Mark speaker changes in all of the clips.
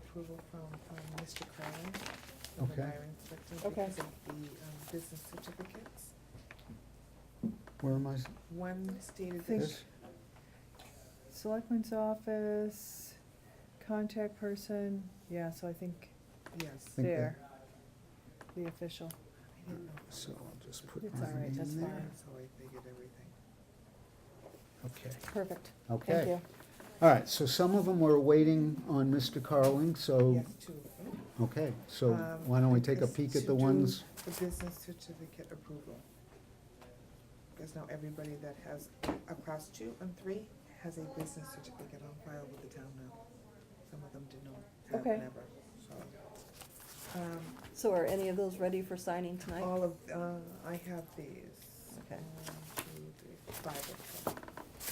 Speaker 1: approval from um, Mr. Cronin, from the
Speaker 2: Okay.
Speaker 1: hiring inspector,
Speaker 3: Okay.
Speaker 1: because of the um, business certificates.
Speaker 2: Where am I? s-
Speaker 1: One stated that.
Speaker 3: Think-
Speaker 2: This?
Speaker 3: Selectman's office, contact person, yeah, so I think
Speaker 1: Yes.
Speaker 2: Think that-
Speaker 3: there, the official.
Speaker 1: I didn't know.
Speaker 2: So I'll just put
Speaker 3: It's
Speaker 2: my
Speaker 3: all right,
Speaker 2: name
Speaker 3: that's
Speaker 2: there.
Speaker 3: fine.
Speaker 1: So I figured everything.
Speaker 2: Okay,
Speaker 3: Perfect, thank
Speaker 2: okay.
Speaker 3: you.
Speaker 2: All right, so some of them were waiting on Mr. Carling, so,
Speaker 1: Yes, two. of them.
Speaker 2: okay, so
Speaker 1: Um,
Speaker 2: why don't we Oh. take a
Speaker 1: this
Speaker 2: peek at
Speaker 1: to
Speaker 2: the
Speaker 1: do
Speaker 2: ones?
Speaker 1: The business certificate approval. Because now everybody that has across two and three has a business certificate on file with the town now. Some of them did not have
Speaker 3: Okay.
Speaker 1: never, so. Um,
Speaker 4: So are any of those ready for signing tonight?
Speaker 1: All of, uh, I have these.
Speaker 4: Okay.
Speaker 1: One, two, three, five of them.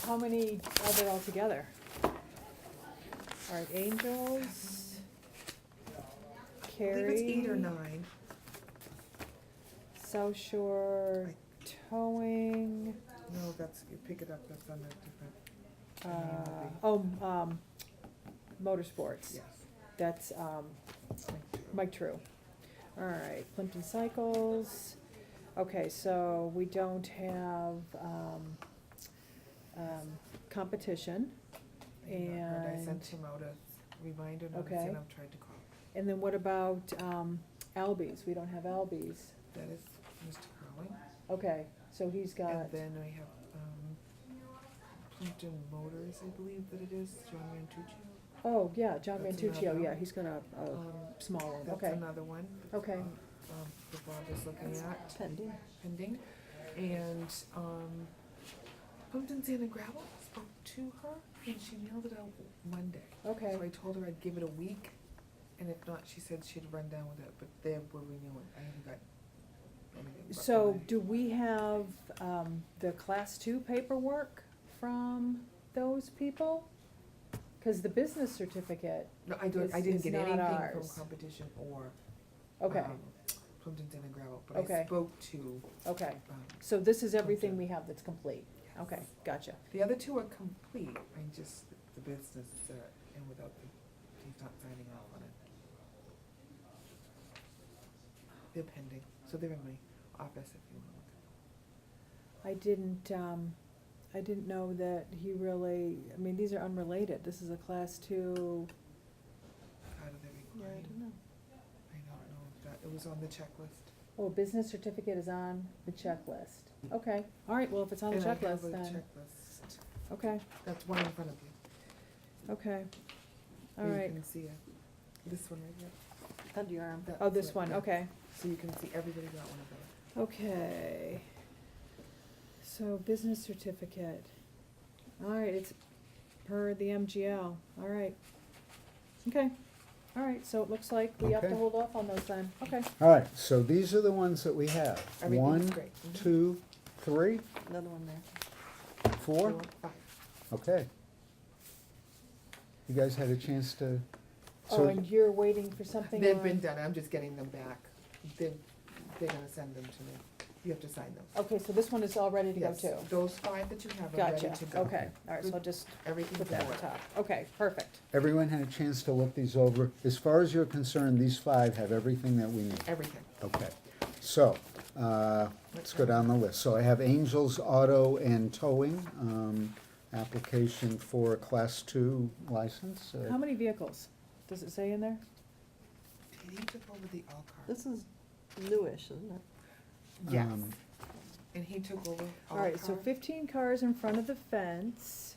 Speaker 3: How many are there altogether? All right, Angels,
Speaker 1: I
Speaker 3: Carrie.
Speaker 1: believe it's eight or nine.
Speaker 3: South Shore Towing,
Speaker 1: No, that's, you pick it up, that's on a different,
Speaker 3: uh,
Speaker 1: Uh,
Speaker 3: oh, um, Motorsports.
Speaker 1: yes.
Speaker 3: That's, um,
Speaker 1: thank you.
Speaker 3: Mike True. All right, Plimpton Cycles. Okay, so we don't have, um, um, competition.
Speaker 1: I did not heard. I
Speaker 3: and-
Speaker 1: sent him out a reminder notice
Speaker 3: Okay.
Speaker 1: and I'm trying to call.
Speaker 3: And then what about, um, Albies? We don't have Albies.
Speaker 1: That is Mr. Carling.
Speaker 3: Okay, so he's got,
Speaker 1: And then we have, um, Plimpton Motors, I believe that it is, John Mantucci.
Speaker 3: oh, yeah, John
Speaker 1: That's
Speaker 3: Mantuccio,
Speaker 1: another.
Speaker 3: yeah, he's gonna, oh,
Speaker 1: Um,
Speaker 3: small one,
Speaker 1: That's
Speaker 3: okay.
Speaker 1: another one.
Speaker 3: Okay.
Speaker 1: um, Um, that Bob is looking at
Speaker 4: Pending.
Speaker 1: pending. And, um, Plimpton Sand and Gravel spoke to her and she nailed it out Monday.
Speaker 3: Okay,
Speaker 1: So I told her I'd give it a week, and if not, she said she'd run down with it, but they were renewing, I haven't got anything. but
Speaker 3: so
Speaker 1: when
Speaker 3: do we have, um, the class two paperwork from those people? Cause the business certificate,
Speaker 1: I- No, I don't, I
Speaker 3: is-
Speaker 1: didn't
Speaker 3: is
Speaker 1: get
Speaker 3: not
Speaker 1: anything from
Speaker 3: ours.
Speaker 1: competition or,
Speaker 3: okay,
Speaker 1: um, Plimpton Sand and Gravel, but I
Speaker 3: Okay.
Speaker 1: spoke to,
Speaker 3: okay.
Speaker 1: um,
Speaker 3: So this is
Speaker 1: Okay.
Speaker 3: everything we have that's complete? Okay, gotcha.
Speaker 1: the other two are complete, I just, the business, uh, and without the, he's not signing off on it. They're pending, so they're in my office if you wanna look.
Speaker 3: I didn't, um, I didn't know that he really, I mean, these are unrelated. This is a class two.
Speaker 1: How do they
Speaker 4: Yeah, I
Speaker 1: require?
Speaker 4: don't know.
Speaker 1: I don't know if that, it was on the checklist.
Speaker 3: Oh, business certificate is on the checklist. Okay, all right, well, if it's on the
Speaker 1: And I have a
Speaker 3: checklist, then,
Speaker 1: checklist.
Speaker 3: okay,
Speaker 1: That's one in front of you.
Speaker 3: okay, all
Speaker 1: You
Speaker 3: right.
Speaker 1: can see it. This one right here.
Speaker 4: Under your arm.
Speaker 1: That's
Speaker 3: Oh, this
Speaker 1: it,
Speaker 3: one,
Speaker 1: yeah.
Speaker 3: okay,
Speaker 1: So you can see everybody got one of those.
Speaker 3: okay. So business certificate. All right, it's per the MGL, all right. Okay, all right, so it looks like we have
Speaker 2: Okay.
Speaker 3: to hold off on those then, okay.
Speaker 2: All right, so these are the ones that we have.
Speaker 1: Everything's
Speaker 2: One,
Speaker 1: great.
Speaker 3: Mm-hmm.
Speaker 1: Mhm.
Speaker 2: two, three,
Speaker 4: Another one there.
Speaker 2: four,
Speaker 1: Four, five.
Speaker 2: okay. You guys had a chance to,
Speaker 3: Oh,
Speaker 2: so,
Speaker 3: and you're waiting for something
Speaker 1: They've been
Speaker 3: on-
Speaker 1: done, I'm just getting them back. They're, they're gonna send them to me. You have to sign those.
Speaker 3: Okay, so this one is all ready to go
Speaker 1: Yes,
Speaker 3: too?
Speaker 1: Those five that you have are ready
Speaker 3: Gotcha,
Speaker 1: to go.
Speaker 3: okay, all right, so I'll just
Speaker 1: Everything's
Speaker 3: put that
Speaker 1: in
Speaker 3: on
Speaker 1: order.
Speaker 3: top. Okay, perfect,
Speaker 2: everyone had a chance to look these over. As far as you're concerned, these five have everything that we need.
Speaker 1: Everything.
Speaker 2: Okay, so, uh, let's go down the list. So I have Angels Auto and Towing, um, application for a Class Two license. uh,
Speaker 3: How many vehicles? Does it say in there?
Speaker 1: Did he took over the all cars?
Speaker 4: This is newish, isn't it?
Speaker 1: Yes,
Speaker 2: um,
Speaker 1: and he took over all
Speaker 3: All right, so
Speaker 1: cars.
Speaker 3: fifteen cars in front of the fence.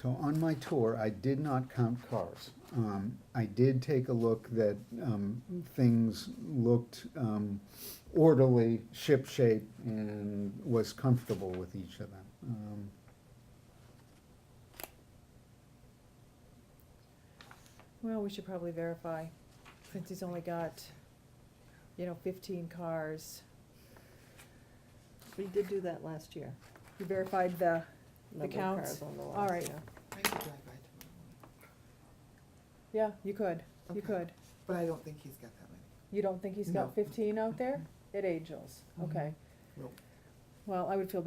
Speaker 2: So on my tour, I did not count cars. Um, I did take a look that, um, things looked, um, orderly, shipshape, and was comfortable with each of them. Um,
Speaker 3: Well, we should probably verify, since he's only got, you know, fifteen cars.
Speaker 4: We did do that last year.
Speaker 3: You verified the,
Speaker 4: Number of
Speaker 3: counts?
Speaker 4: cars on the
Speaker 3: All
Speaker 4: lots,
Speaker 3: right.
Speaker 4: yeah.
Speaker 1: I could drive by tomorrow morning,
Speaker 3: yeah, you could,
Speaker 1: Okay.
Speaker 3: you could.
Speaker 1: but I don't think he's got that many.
Speaker 3: You don't think he's
Speaker 1: No.
Speaker 4: Mm-hmm.
Speaker 3: got fifteen out there? At Angels, okay.
Speaker 1: Nope.
Speaker 3: Well, I would feel better